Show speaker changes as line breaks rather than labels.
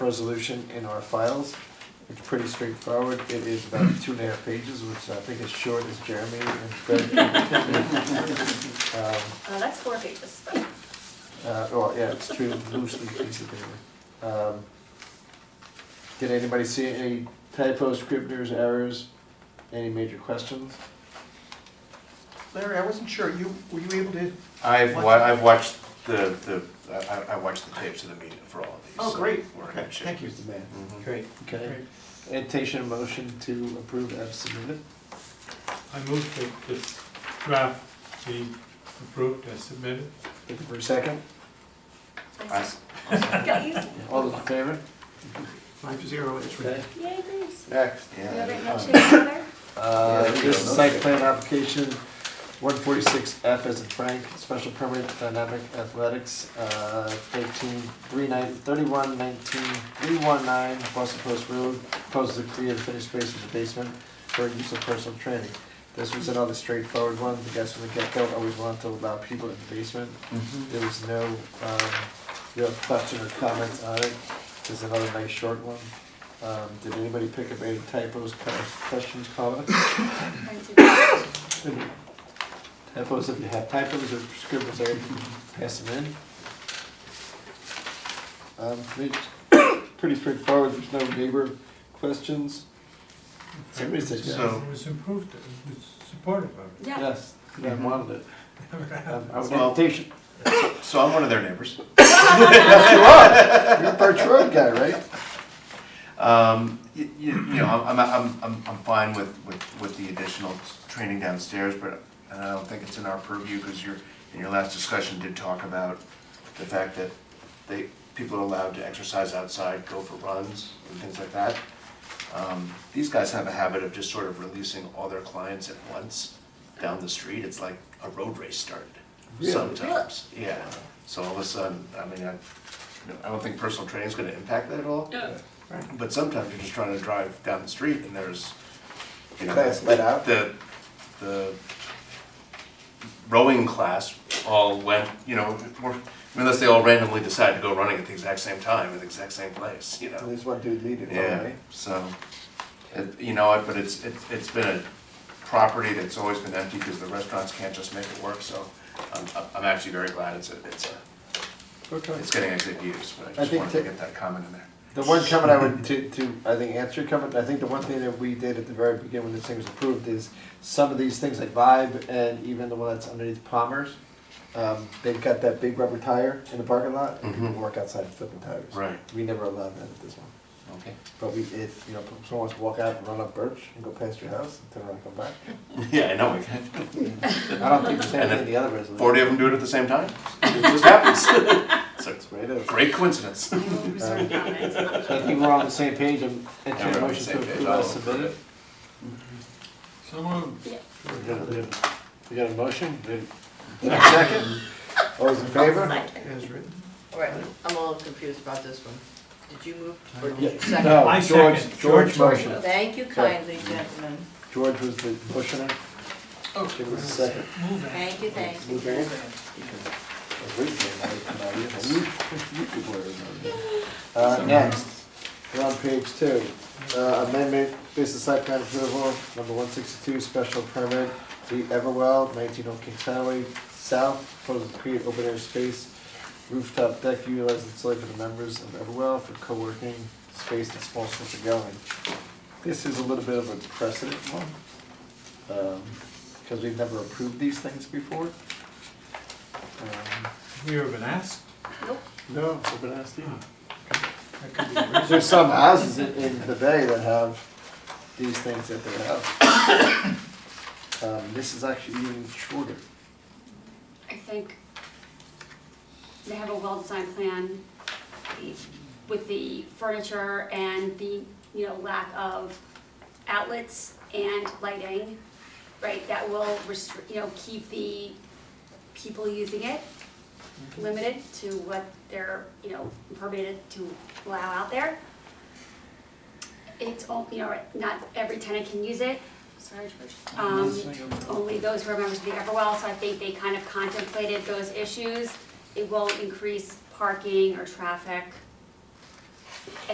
resolution in our files. It's pretty straightforward. It is about two and a half pages, which I think is short as Jeremy and Fred. Um,
Uh, that's four pages. but-
Uh, well, yeah, it's true, loosely piece of paper. Um, Did anybody see any typos, scribblers, errors, any major questions?
Larry, I wasn't sure, you, were you able to?
I've
What?
wa- I've watched the, the, I, I- I watched the tapes of the meeting for all of these.
Oh,
so
great.
We're in
Okay,
good shape.
thank you.
Here's the man.
Mhm.
Great.
Okay, entertain a motion to approve as submitted.
I move that this draft be approved as submitted.
Looking for a second?
I-
Got you.
All those in favor?
Five to zero, it's
Okay.
right.
Yay, Grace.
Next.
You have it,
Yeah.
handshake together?
Uh,
Yeah, there you
This
go.
is site plan application, one forty-six F as in Frank, special permit dynamic athletics, uh, thirteen, three nine, thirty-one nineteen, three one nine, Boston Post Road, proposes to create a finished space in the basement for use of personal training. This was another straightforward one, the guys from the get-go always wanted to allow people in the basement,
Mm-hmm.
there was no, um, real question or comments on it, there's another nice short one. Um, did anybody pick up any typos, comments, questions, comments?
I do.
Typos, if you have typos or scribbles there, pass them in. Um, it's pretty straightforward, there's no neighbor questions. Somebody said yes.
So-
It was improved, it was supportive of it.
Yeah.
Yes, I wanted it.
Never
Um,
happened.
I was
Well-
invitation.
So I'm one of their neighbors.
You're a Birch Road guy, right?
Um, you, you know, I'm, I'm, I'm, I'm fine with, with, with the additional training downstairs, but I don't think it's in our purview, because your, in your last discussion did talk about the fact that they, people are allowed to exercise outside, go for runs and things like that. Um, these guys have a habit of just sort of releasing all their clients at once down the street, it's like a road race started
Really?
sometimes, yeah. So all of a sudden, I mean, I, you know, I don't think personal training's gonna impact that at all. But sometimes you're just trying to drive down the street and there's, you know,
Class let out.
the, the rowing class all went, you know, were- unless they all randomly decided to go running at the exact same time in the exact same place, you know?
There's one dude leading,
Yeah,
right?
so, it, you know, it- but it's, it's, it's been a property that's always been empty because the restaurants can't just make it work, so I'm, I'm actually very glad it's, a- it's, a-
Okay.
it's getting a good use, but I just
think
wanted to
that-
get that comment in there.
The one comment I would, to, to, I think, answer your comment, I think the one thing that we did at the very beginning when this thing was approved is some of these things like Vibe and even the one that's underneath Palmer's, um, they've got that big rubber tire in the parking lot, and people
Mhm.
work outside and flip the tires.
Right.
We never allowed that at this one.
Okay.
But we, if, you know, if someone wants to walk out and run up Birch and go past your house and turn around and come back,
Yeah, I know, we can.
I don't think there's
And
anything
if
in the other resolution.
Forty of them do it at the same time. It just happens. It's a
Right, it is.
great coincidence.
I will reserve
Uh,
comments.
So I think we're on the same page, and entertain a
Yeah, we're on the
motion to
same page. Oh.
approve
I'll
as submitted.
So moved.
Yeah.
We got a- we got a motion, Did- did I second? All those in favor?
Second.
As written.
All right, I'm a little confused about this one. Did you move or did you
Yeah,
second?
no,
I
George,
second.
George
George
motioned.
Thank you kindly, gentlemen.
George was the motioner. Give us a second.
Move it.
Thank you, thank you.
Blueberry? I was waiting for that to come out. You have a new- you could wear it on there. Uh, next, we're on page two, uh, amendment, business site plan approval, number one sixty-two, special permit, the Everwell, nineteen Old Kings Highway, south, proposed to create open air space, rooftop deck utilized and solely for the members of Everwell for co-working space and small social gathering. This is a little bit of a precedent one, um, because we've never approved these things before. Um,
We were been asked.
Nope.
No, I've been asked either.
That could be very-
There's some houses in, in the bay that have these things at their house. Um, this is actually even shorter.
I think they have a well-designed plan with the furniture and the, you know, lack of outlets and lighting, right, that will restrict, you know, keep the people using it limited to what they're, you know, permitted to allow out there. It's, all- you know, not every tenant can use it, sorry, George. Um, only those who are members of the Everwell, so I think they kind of contemplated those issues. It won't increase parking or traffic.